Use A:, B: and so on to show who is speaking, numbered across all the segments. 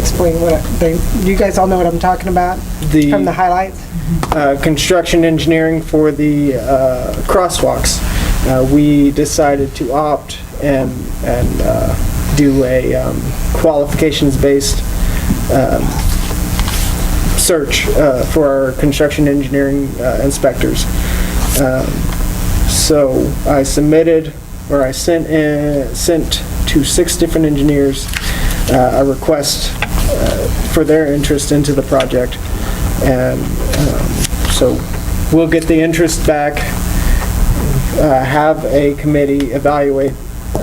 A: explain what they, you guys all know what I'm talking about from the
B: The
A: highlights?
B: uh, construction engineering for the uh, crosswalks, uh, we decided to opt and, and uh, do a um, qualifications-based um, search uh, for our construction engineering uh, inspectors. Um, So I submitted, or I sent, in- sent to six different engineers uh, a request uh, for their interest into the project. And um, so we'll get the interest back, uh, have a committee evaluate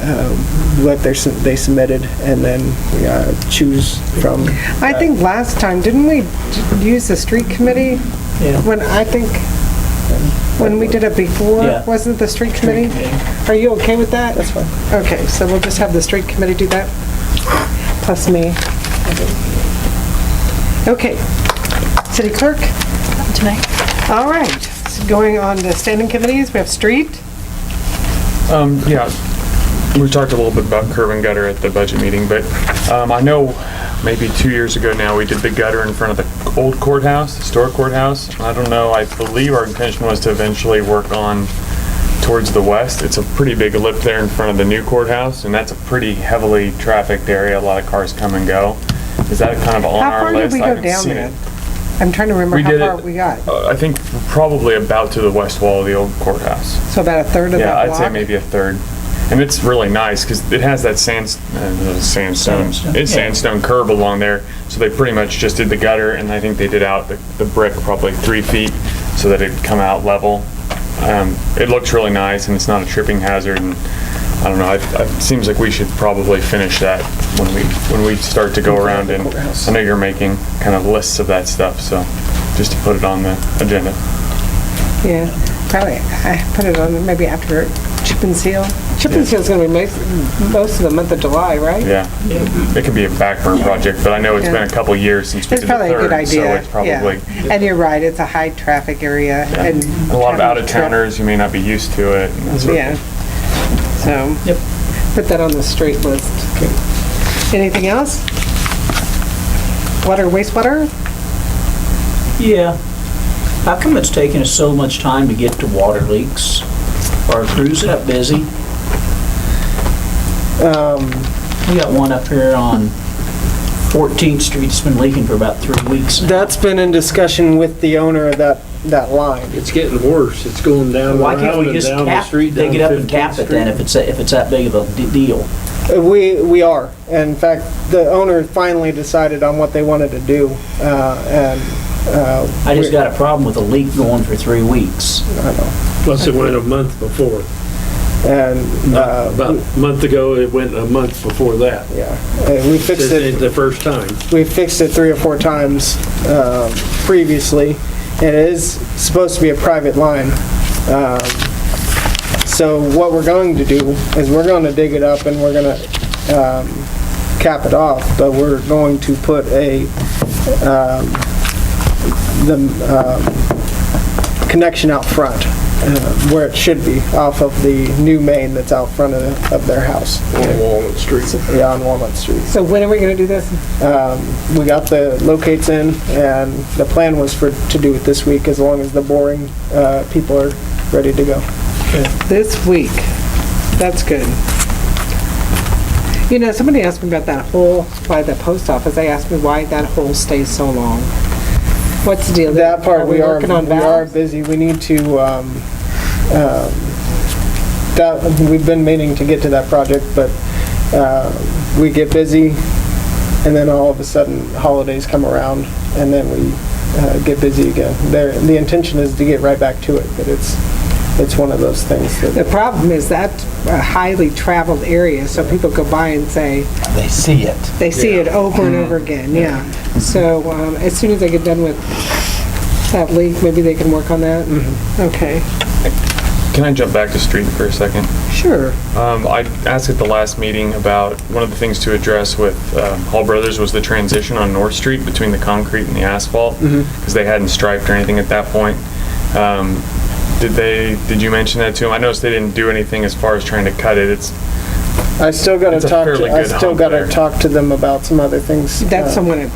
B: um, what they're su- they submitted, and then uh, choose from.
A: I think last time, didn't we d- use the street committee?
C: Yeah.
A: When, I think, when we did it before,
C: Yeah.
A: wasn't it the street committee? Are you okay with that? That's fine. Okay, so we'll just have the street committee do that, plus me. Okay. City clerk?
D: tonight.
A: All right, so going on to standing committees, we have street.
E: Um, yeah, we talked a little bit about curb and gutter at the budget meeting, but, um, I know maybe two years ago now, we did the gutter in front of the old courthouse, historic courthouse. I don't know, I believe our intention was to eventually work on towards the west. It's a pretty big lip there in front of the new courthouse, and that's a pretty heavily trafficked area. A lot of cars come and go. Is that kind of on
A: How
E: our
A: far did
E: list?
A: we
E: I
A: go
E: haven't
A: down
E: seen
A: there?
E: it.
A: I'm trying to remember
E: We
A: how
E: did
A: far
E: it-
A: we got.
E: Uh, I think probably about to the west wall of the old courthouse.
A: So about a third of
E: Yeah,
A: that
E: I'd
A: block?
E: say maybe a third. And it's really nice because it has that sand, uh, sandstone,
C: Sandstone,
E: it's
C: yeah.
E: sandstone curb along there. So they pretty much just did the gutter and I think they did out the, the brick probably three feet so that it'd come out level. Um, it looks really nice and it's not a tripping hazard and I don't know, I, I- it seems like we should probably finish that when we, when we start to go around and I know you're making kind of lists of that stuff, so just to put it on the agenda.
A: Yeah, probably, I put it on maybe after chip and seal. Chip and
E: Yeah.
A: seal's gonna be most, most of the month of July, right?
E: Yeah, it could be a backburn project, but I know it's been
A: Yeah.
E: a couple years since we
A: It's
E: did the
A: probably a good
E: third, so
A: idea,
E: it's
A: yeah.
E: probably,
A: And you're right, it's a high-traffic area and.
E: and a lot of out-of-towners, you may not be used to it. and that sort of
A: Yeah, so.
C: Yep.
A: Put that on the street list. Anything else? Water, wastewater?
C: Yeah. How come it's taking us so much time to get to water leaks? Are crews that busy?
B: Um,
C: We got one up here on 14th Street, it's been leaking for about three weeks now.
B: That's been in discussion with the owner of that, that line.
F: It's getting worse. It's going down
C: Why can't
F: around
C: we
F: and
C: just
F: down the
C: cap,
F: street.
C: dig
F: down
C: it up and
F: 15th
C: cap it then
F: Street.
C: if it's, that- if it's that big of a de- deal?
B: Uh, We, we are. In fact, the owner finally decided on what they wanted to do, uh, and, uh.
C: I just got a problem with a leak going for three weeks.
F: Plus it went a month before.
B: And,
F: Not-
C: Oh.
B: uh,
F: About a month ago, it went a month before that.
B: yeah, Uh, we fixed
F: This
B: it,
F: is the first time.
B: we fixed it three or four times, um, previously, and it is supposed to be a private line. Um, So what we're going to do is we're gonna dig it up and we're gonna, um, cap it off, but we're going to put a, um, the, um, connection out front, uh, where it should be, off of the new main that's out front of, of their house.
F: On Walnut Street.
B: Yeah, on Walnut Street.
A: So when are we gonna do this?
B: Um, We got the locates in, and the plan was for, to do it this week, as long as the boring uh, people are ready to go.
A: This week. That's good. You know, somebody asked me about that hole by the post office. They asked me why that hole stays so long. What's the deal?
B: That part, we are,
A: working
B: we
A: on
B: are
A: valves?
B: busy, we need to, um, um, that, we've been meaning to get to that project, but uh, we get busy, and then all of a sudden, holidays come around, and then we uh, get busy again. There, the intention is to get right back to it, but it's, it's one of those things that...
A: The problem is that's a highly traveled area, so people go by and say,
G: they see it. Mm-hmm.
A: they see it over and over again, yeah. So um, as soon as they get done with that leak, maybe they can work on that?
G: Mm-hmm.
A: Okay,
E: Can I jump back to street for a second?
A: sure.
E: Um, I asked at the last meeting about, one of the things to address with um, Hall Brothers was the transition on North Street between the concrete and the asphalt,
A: Mm-hmm.
E: because they hadn't striped or anything at that point. Um, Did they, did you mention that to them? I noticed they didn't do anything as far as trying to cut it. It's
B: I still gotta
E: It's a
B: talk, to-
E: fairly
B: I
E: good
B: still
E: hump
B: gotta
E: there.
B: talk to them about some other things.
A: That's
B: uh,
A: someone at